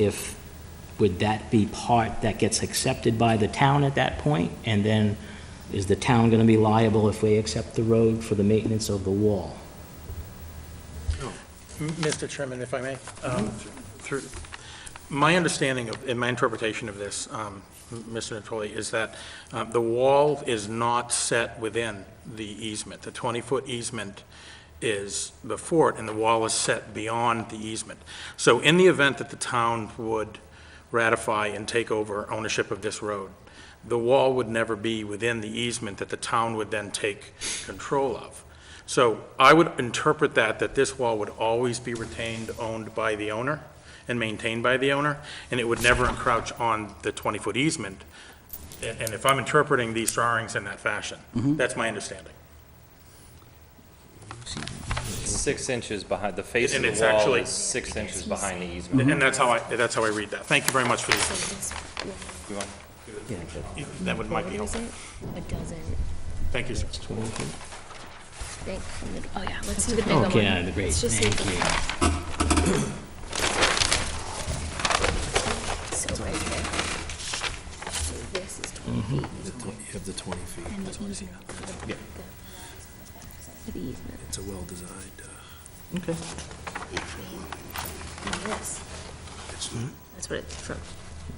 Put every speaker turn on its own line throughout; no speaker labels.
if, would that be part that gets accepted by the town at that point? And then is the town going to be liable if we accept the road for the maintenance of the wall?
Mr. Chairman, if I may, um, through, my understanding of, and my interpretation of this, um, m- Mr. Natoli, is that uh, the wall is not set within the easement. The 20-foot easement is before it, and the wall is set beyond the easement. So in the event that the town would ratify and take over ownership of this road, the wall would never be within the easement that the town would then take control of. So I would interpret that, that this wall would always be retained, owned by the owner and maintained by the owner, and it would never encroach on the 20-foot easement. And and if I'm interpreting these drawings in that fashion, that's my understanding.
Six inches behind, the face of
And it's
the wall
actually- Mm-hmm.
is six inches behind the easement.
And that's how I, that's how I read that. Thank you very much for these.
Do you want-
That would, might be
Is
helpful.
it? It doesn't.
Thank you, sir.
Thank- Oh, yeah, let's do the bigger one.
Okay, great,
Let's just
thank
leave
you.
the- So right here. So this is 20 feet.
You have the 20 feet,
Mm,
And the easement. for the- For the easement.
it's a well-designed, uh,
Okay.
And this,
it's not,
that's what it's from,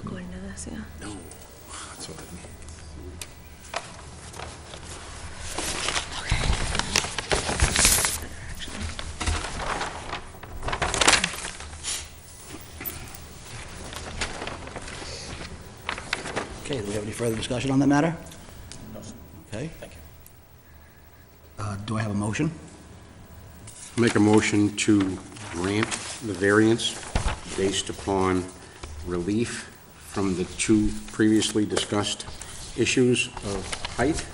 according to this, yeah.
no, that's what I mean.
Better, actually.
Okay, do we have any further discussion on that matter? Okay. Thank you. Do I have a motion?
Make a motion to grant the variance based upon relief from the two previously discussed issues of height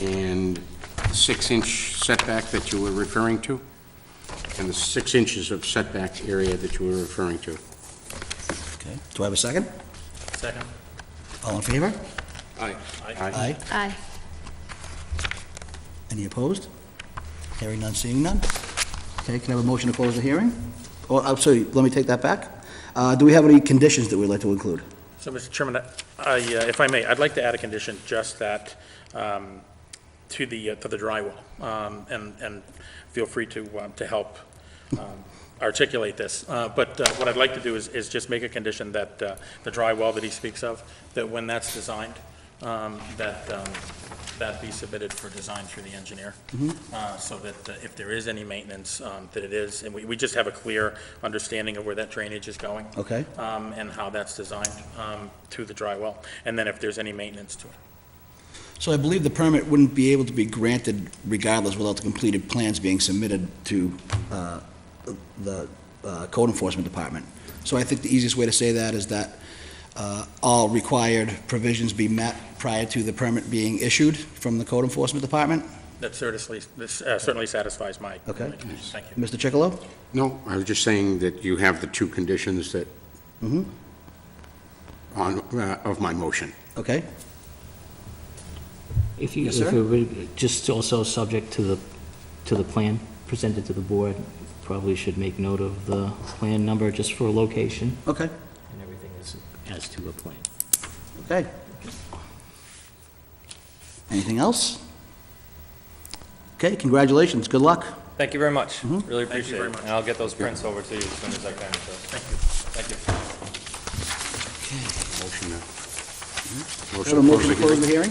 and six-inch setback that you were referring to, and the six inches of setback area that you were referring to.
Okay. Do I have a second?
Second.
All in favor?
Aye.
Aye.
Aye.
Any opposed? Hearing none, seeing none. Okay, can I have a motion to close the hearing? Oh, I'm sorry, let me take that back. Uh, Do we have any conditions that we'd like to include?
So, Mr. Chairman, I- I, uh, if I may, I'd like to add a condition just that, um, to the, uh, to the drywall, Um, and, and feel free to, um, to help um, articulate this. Uh, But uh, what I'd like to do is, is just make a condition that uh, the drywall that he speaks of, that when that's designed, um, that, um, that be submitted for design through the engineer. Uh, So that uh, if there is any maintenance, um, that it is, and we, we just have a clear understanding of where that drainage is going
Okay.
um, and how that's designed um, to the dry well, and then if there's any maintenance to it.
So I believe the permit wouldn't be able to be granted regardless without the completed plans being submitted to uh, the uh, code enforcement department. So I think the easiest way to say that is that uh, all required provisions be met prior to the permit being issued from the code enforcement department.
That certainly, this uh, certainly satisfies my.
Okay.
my conditions. Thank you.
Mr. Chicolo?
No, I was just saying that you have the two conditions that,
Mhm.
on, uh, of my motion.
Okay,
If you,
Yes,
if
sir.
it would- just also subject to the, to the plan presented to the board, probably should make note of the plan number just for location.
okay,
And everything is as to a plan.
okay. Anything else? Okay, congratulations, good luck.
Thank you very much.
Mm-hmm.
Really
Thank you
appreciate it.
very
And
much.
I'll get those prints over to you as soon as I can. so. Thank you.
Motion
Do
to.
I have a motion to close the hearing?
hearing.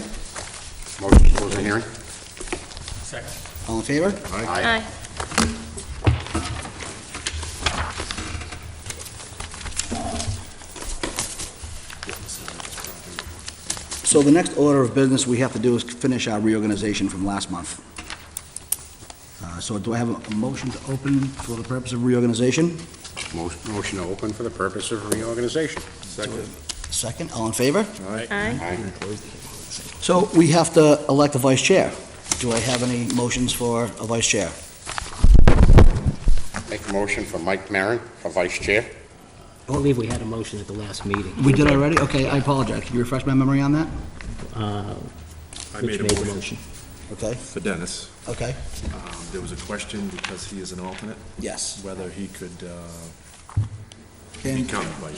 Motion to close the hearing.
Second.
All in favor?
Aye.
Aye.
So the next order of business we have to do is finish our reorganization from last month. Uh, So do I have a- a motion to open for the purpose of reorganization?
Mo- Motion to open for the purpose of reorganization. Second.
Second, all in favor?
Aye.
Aye.
So we have to elect a vice chair. Do I have any motions for a vice chair?
Make a motion for Mike Maron for vice chair.
I believe we had a motion at the last meeting.
We did already? Okay, I apologize. Can you refresh my memory on that?
Uh,
I
Rich
made
made the
a motion
motion.
Okay,
for Dennis.
okay,
Um, There was a question, because he is an alternate,
yes.
whether he could uh,
And-
Become vice